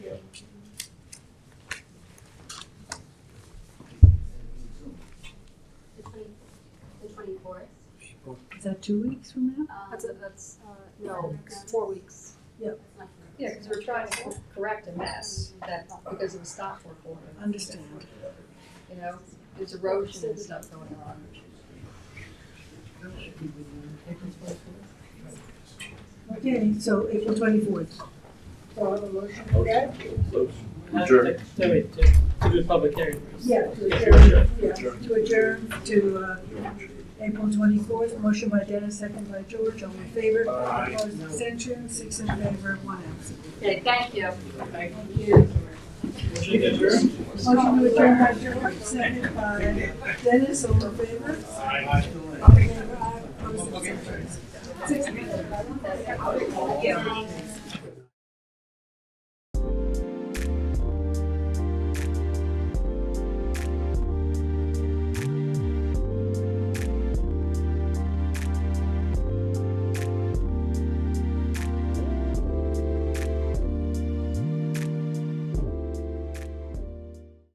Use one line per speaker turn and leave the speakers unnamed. Is that two weeks from now?
That's, a- that's, uh, no, it's four weeks.
Yep.
Yeah, because we're trying to correct a mess that, because of the stop work order,
Understand.
you know, there's erosion and stuff going on.
Okay, so April twenty-fourth.
So I have a motion for that?
Adjourn.
No, wait, to, to do a public hearing.
Yeah, to
Yeah,
adjourn, yeah, to adjourn to, uh, April twenty-fourth, motion by Dennis, second by George, all in favor.
Aye.
Opposed, extension, six in favor, one absent.
Okay, thank you.
Thank
you.
Motion to adjourn?
Motion to adjourn by George, second by Dennis, all in favor. All in favor, aye. Opposed, abstentions. Six in favor. Yeah.